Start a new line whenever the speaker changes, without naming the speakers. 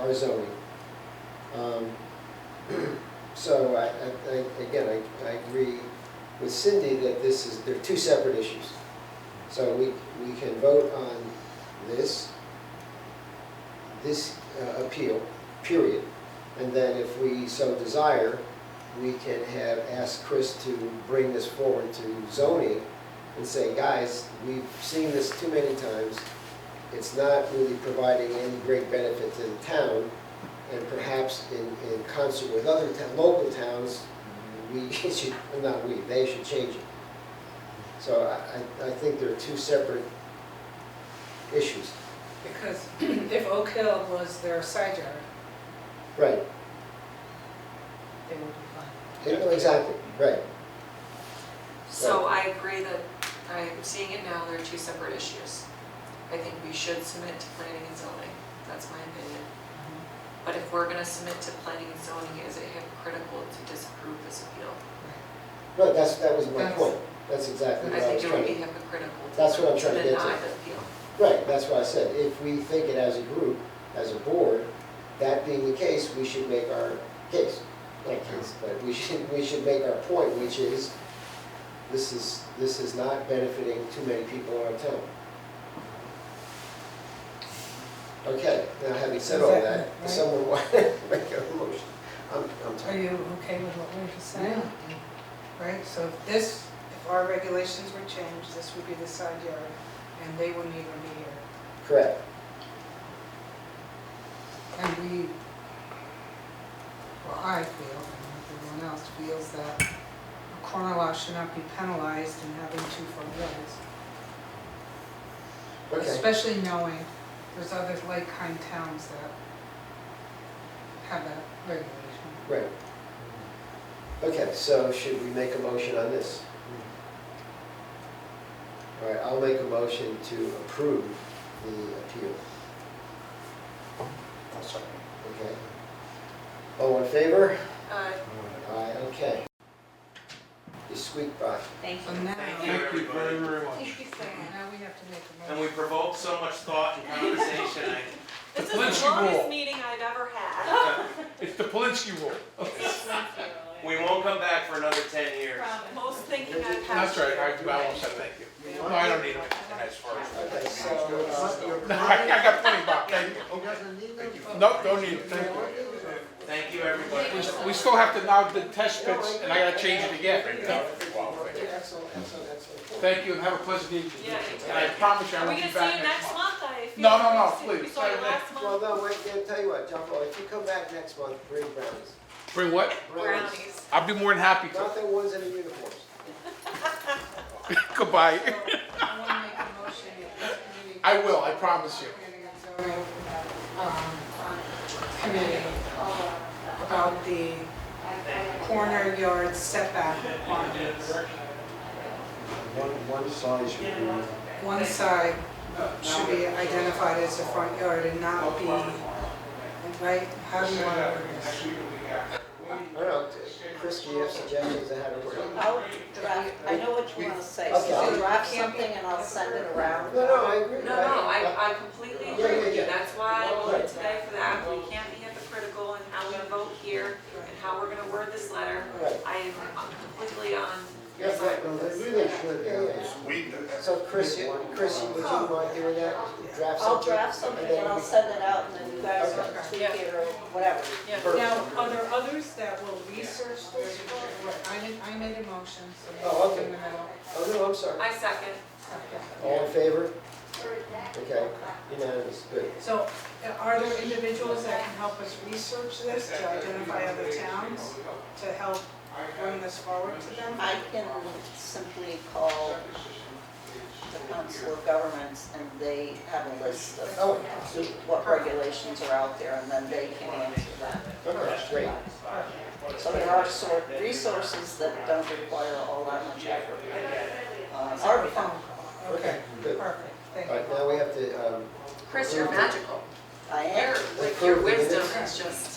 our zoning. Um, So I, I- I, again, I, I agree with Cindy that this is, they're two separate issues. So we, we can vote on this, this uh, appeal, period. And then if we so desire, we can have, ask Chris to bring this forward to zoning and say, guys, we've seen this too many times. It's not really providing any great benefit to the town. And perhaps in, in concert with other town, local towns, we should, not we, they should change it. So I, I, I think they're two separate issues.
Because if Oak Hill was their side yard,
Right,
they would be fine.
Yeah, exactly, right.
So I agree that, I'm seeing it now, they're two separate issues. I think we should submit to planning and zoning, that's my opinion.
Mhm.
But if we're gonna submit to planning and zoning, is it hypocritical to disapprove this appeal?
Right, that's, that was my
That's-
point. That's exactly
I
what I was
think it would
trying
be
to.
hypocritical to
That's what I'm trying to
deny the
get
appeal.
to. Right, that's why I said, if we think it as a group, as a board, that being the case, we should make our case. Not case, but we should, we should make our point, which is, this is, this is not benefiting too many people in our town. Okay, now having said all that,
Exactly, right.
does someone want to make a motion? I'm, I'm
Are
tired.
you okay with what we just said? Right, so if this, if our regulations were changed, this would be the side yard, and they wouldn't even be here.
Correct.
And we, well, I feel, and everyone else feels that a corner lot should not be penalized in having two front yards.
Okay.
Especially knowing there's other like-kind towns that have that regulation.
Right. Okay, so should we make a motion on this? All right, I'll make a motion to approve the appeal,
I'll second.
okay? All in favor?
Uh,
Aye, okay. You squeaked by.
thank
So now,
Thank you,
now
everybody.
very, very much.
you so
we have to make a
And we
motion.
provoked so much thought and conversation, I
This
Let's
is the longest
roll.
meeting I've ever had.
It's the Polinsky rule.
We won't come back for another ten years.
Most thinking I've had.
That's right, I, I won't say thank you. No, I don't need it, that's fine.
Okay, so, uh, your
No, I I
client
got plenty, Bob, thank you.
doesn't need them?
No, don't need it, thank you.
Thank you, everybody.
We still have to now do the test pits, and I gotta change it again.
Excellent, excellent, excellent.
Thank you, and have a pleasant evening.
Yeah.
And I promise you, I
Are we
won't
gonna
be
see
back
you
next
next
month.
month? I feel
No, no, no,
like we- We
please,
saw you
sorry,
last month.
Well, no, wait, I'll tell you what, Jumbo, if you come back next month, bring brownies.
Bring what?
Brownies.
I'll be more than happy to.
Nothing ones in the uniforms.
Goodbye.
So, I want to make a motion at this meeting.
I will, I promise you.
Planning and zoning, um, Committee uh, about the corner yard setback requirements.
One, one size should be,
One side should be identified as the front yard and not be, right? How do you want to word this?
I don't know, Chris, do you have suggestions on how to work it?
I'll draft, I know what you wanna say,
Okay.
so draft something and I'll send it around.
No, no, I agree.
No, no, I, I completely agree with you, that's why I voted today for that, we can't be hypocritical in how we vote here and how we're gonna word this letter.
Right.
I am completely on your
Yes,
side
right,
with
well,
this.
they really should, yeah, yeah. So Chris, you- Chris, would you mind doing that? Draft
I'll
something?
draft something and I'll send it out and then you guys can tweak it or whatever.
Now, are there others that will research this? I didn't, I made a motion, so.
Oh, okay.
uh,
Oh, no, I'm sorry.
I second,
All in favor? Okay, unanimous, good.
So uh, are there individuals that can help us research this to identify other towns to help bring this forward to them?
I can simply call the Council of Governments and they have a list of
Oh, super,
what regulations are out there and then they can answer that.
okay, great.
So there are sort resources that don't require all that much effort. Uh, Our phone call.
Okay, good. All
Perfect, thank you.
right, now we have to, um,
Chris, you're magical,
I am.
your, with your wisdom is just.
Oh, Oh,